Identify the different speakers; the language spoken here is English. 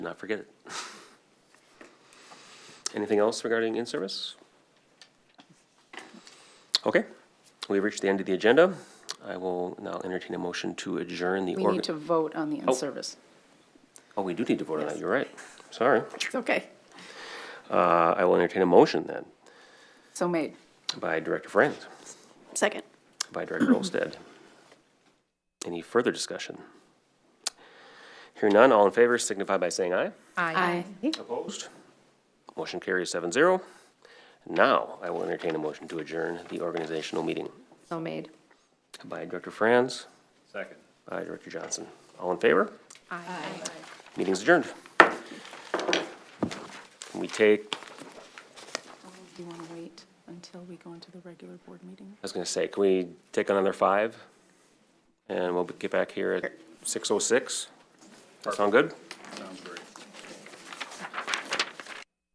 Speaker 1: not forget it. Anything else regarding in-service? Okay, we've reached the end of the agenda. I will now entertain a motion to adjourn the.
Speaker 2: We
Speaker 1: organ-
Speaker 2: need to vote on the in-service.
Speaker 1: Oh, we do need to vote on that,
Speaker 2: Yes.
Speaker 1: you're right. Sorry.
Speaker 2: It's okay.
Speaker 1: Uh, I will entertain a motion then
Speaker 2: So made.
Speaker 1: by Director Franz.
Speaker 2: Second.
Speaker 1: by Director Olstead. Any further discussion? Hearing none, all in favor signify by saying aye.
Speaker 2: Aye.
Speaker 1: Opposed? Motion carries seven zero. Now, I will entertain a motion to adjourn the organizational meeting
Speaker 3: So made.
Speaker 1: by Director Franz,
Speaker 4: Second.
Speaker 1: by Director Johnson. All in favor?
Speaker 3: Aye.
Speaker 1: Meeting's adjourned. Can we take, I
Speaker 2: Do you want to wait until we go into the regular board meeting?
Speaker 1: was gonna say, can we take another five? And we'll get back here at six oh six? That sound good?
Speaker 4: Sounds great.